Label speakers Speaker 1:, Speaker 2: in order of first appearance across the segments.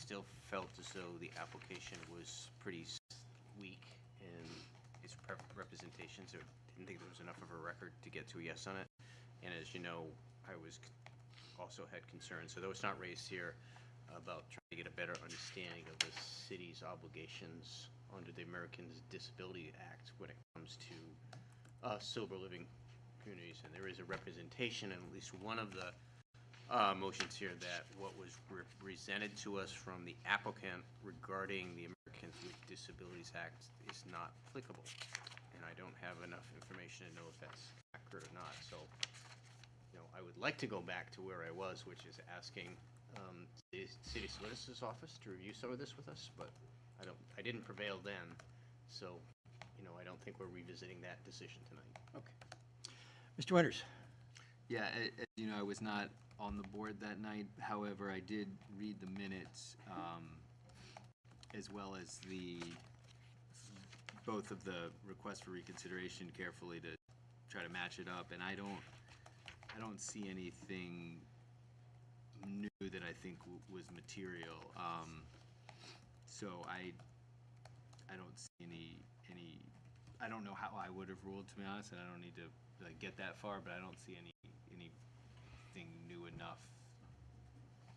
Speaker 1: still felt as though the application was pretty s- weak in its prep- representations, or didn't think there was enough of a record to get to a yes on it. And as you know, I was, c- also had concerns, although it's not raised here, about trying to get a better understanding of the city's obligations under the Americans Disability Act when it comes to uh, sober living communities. And there is a representation in at least one of the uh, motions here that what was re- presented to us from the applicant regarding the Americans with Disabilities Act is not applicable. And I don't have enough information to know if that's accurate or not. So, you know, I would like to go back to where I was, which is asking um, the city solicitor's office to review some of this with us, but I don't, I didn't prevail then. So, you know, I don't think we're revisiting that decision tonight.
Speaker 2: Mr. Winters?
Speaker 3: Yeah, a- as you know, I was not on the board that night. However, I did read the minutes, um, as well as the, both of the requests for reconsideration carefully to try to match it up. And I don't, I don't see anything new that I think w- was material. Um, So I, I don't see any, any, I don't know how I would have ruled, to be honest, and I don't need to like get that far, but I don't see any, anything new enough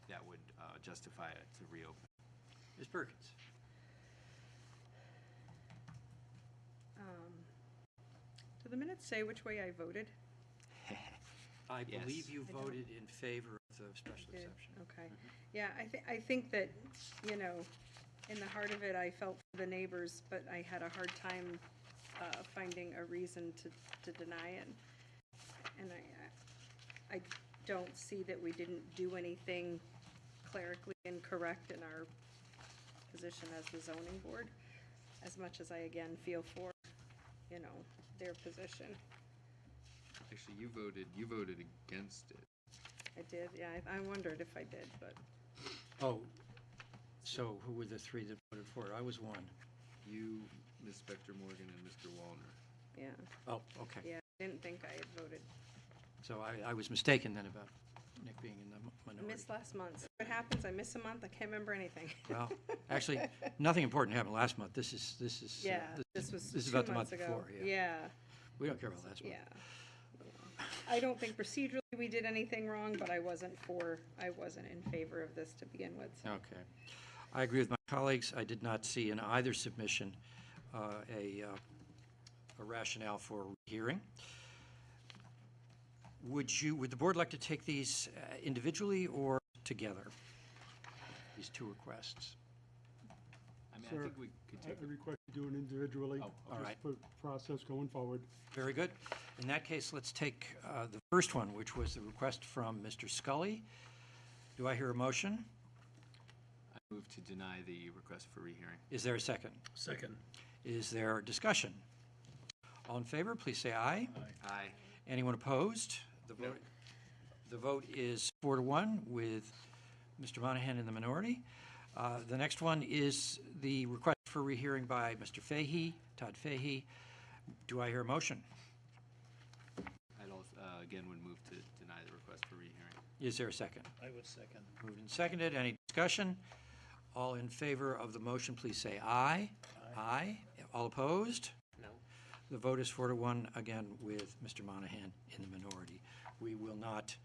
Speaker 3: that would uh, justify it to reopen.
Speaker 2: Ms. Perkins?
Speaker 4: Um, Do the minutes say which way I voted?
Speaker 2: I
Speaker 3: Yes.
Speaker 2: believe you
Speaker 4: I don't-
Speaker 2: voted in favor of the special
Speaker 4: Did-
Speaker 2: exception.
Speaker 4: Okay. Yeah, I thi, I think that, you know, in the heart of it, I felt for the neighbors, but I had a hard time, uh, finding a reason to, to deny it. And I, I I don't see that we didn't do anything clerically incorrect in our position as the zoning board, as much as I again feel for, you know, their position.
Speaker 3: Actually, you voted, you voted against it.
Speaker 4: I did, yeah, I, I wondered if I did, but.
Speaker 2: Oh, so who were the three that voted for it? I was one.
Speaker 3: You, Ms. Spector Morgan, and Mr. Walner.
Speaker 4: Yeah,
Speaker 2: Oh, okay.
Speaker 4: yeah, I didn't think I had voted.
Speaker 2: So I, I was mistaken then about Nick being in the mi-
Speaker 4: I
Speaker 2: minority.
Speaker 4: missed last month. What happens, I miss a month, I can't remember anything.
Speaker 2: Well, actually, nothing important happened last month. This is, this is. uh,
Speaker 4: Yeah, this was
Speaker 2: This is
Speaker 4: two
Speaker 2: about the month
Speaker 4: months ago.
Speaker 2: before, yeah.
Speaker 4: Yeah,
Speaker 2: We don't care about last month.
Speaker 4: yeah. yeah. I don't think procedurally we did anything wrong, but I wasn't for, I wasn't in favor of this to begin with. so-
Speaker 2: Okay. I agree with my colleagues. I did not see in either submission uh, a uh, a rationale for hearing. Would you, would the board like to take these uh, individually or together? These two requests?
Speaker 3: I mean,
Speaker 5: Sir,
Speaker 3: I think we could
Speaker 5: I
Speaker 3: take,
Speaker 5: I request you do it individually.
Speaker 3: Oh,
Speaker 2: all right.
Speaker 5: Just for process going forward.
Speaker 2: Very good. In that case, let's take uh, the first one, which was the request from Mr. Scully. Do I hear a motion?
Speaker 3: I move to deny the request for rehearing.
Speaker 2: Is there a second? Second. Is there discussion? All in favor, please say aye.
Speaker 3: Aye.
Speaker 2: Anyone opposed? The vote, the vote is four to one with Mr. Monahan in the minority. Uh, The next one is the request for rehearing by Mr. Fahy, Todd Fahy. Do I hear a motion?
Speaker 3: I'd also, uh, again, would move to deny the request for rehearing.
Speaker 2: Is there a second? I would second. Moved and seconded. Any discussion? All in favor of the motion, please say aye. Aye. All opposed?
Speaker 1: No?
Speaker 2: The vote is four to one, again, with Mr. Monahan in the minority. We will not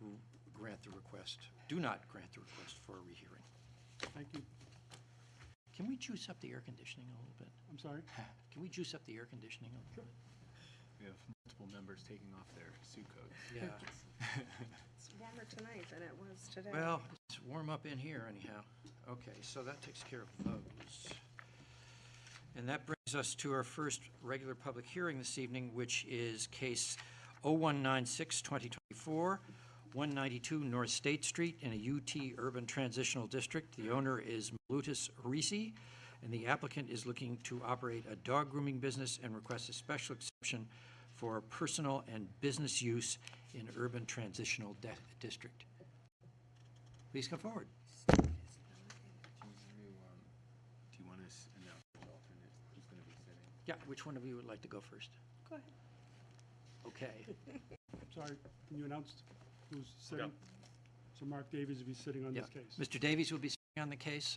Speaker 2: r- grant the request, do not grant the request for a rehearing.
Speaker 5: Thank you.
Speaker 2: Can we juice up the air conditioning a little bit?
Speaker 5: I'm sorry.
Speaker 2: Can we juice up the air conditioning a little bit?
Speaker 3: We have multiple members taking off their suit coats.
Speaker 2: Yeah,
Speaker 4: It's warmer tonight than it was today.
Speaker 2: well, it's warm up in here anyhow. Okay, so that takes care of those. And that brings us to our first regular public hearing this evening, which is case 0196, 2024, 192 North State Street in a UT Urban Transitional District. The owner is Malutus Risi, and the applicant is looking to operate a dog grooming business and requests a special exception for personal and business use in urban transitional de- district. Please come forward.
Speaker 3: Do you, um, do you want to s- announce the alternate who's going to be sitting?
Speaker 2: Yeah, which one of you would like to go first?
Speaker 4: Go ahead.
Speaker 2: Okay.
Speaker 5: I'm sorry. Can you announce who's sitting? So Mark Davies will be sitting on
Speaker 2: Yeah.
Speaker 5: this case.
Speaker 2: Mr. Davies will be sitting on the case?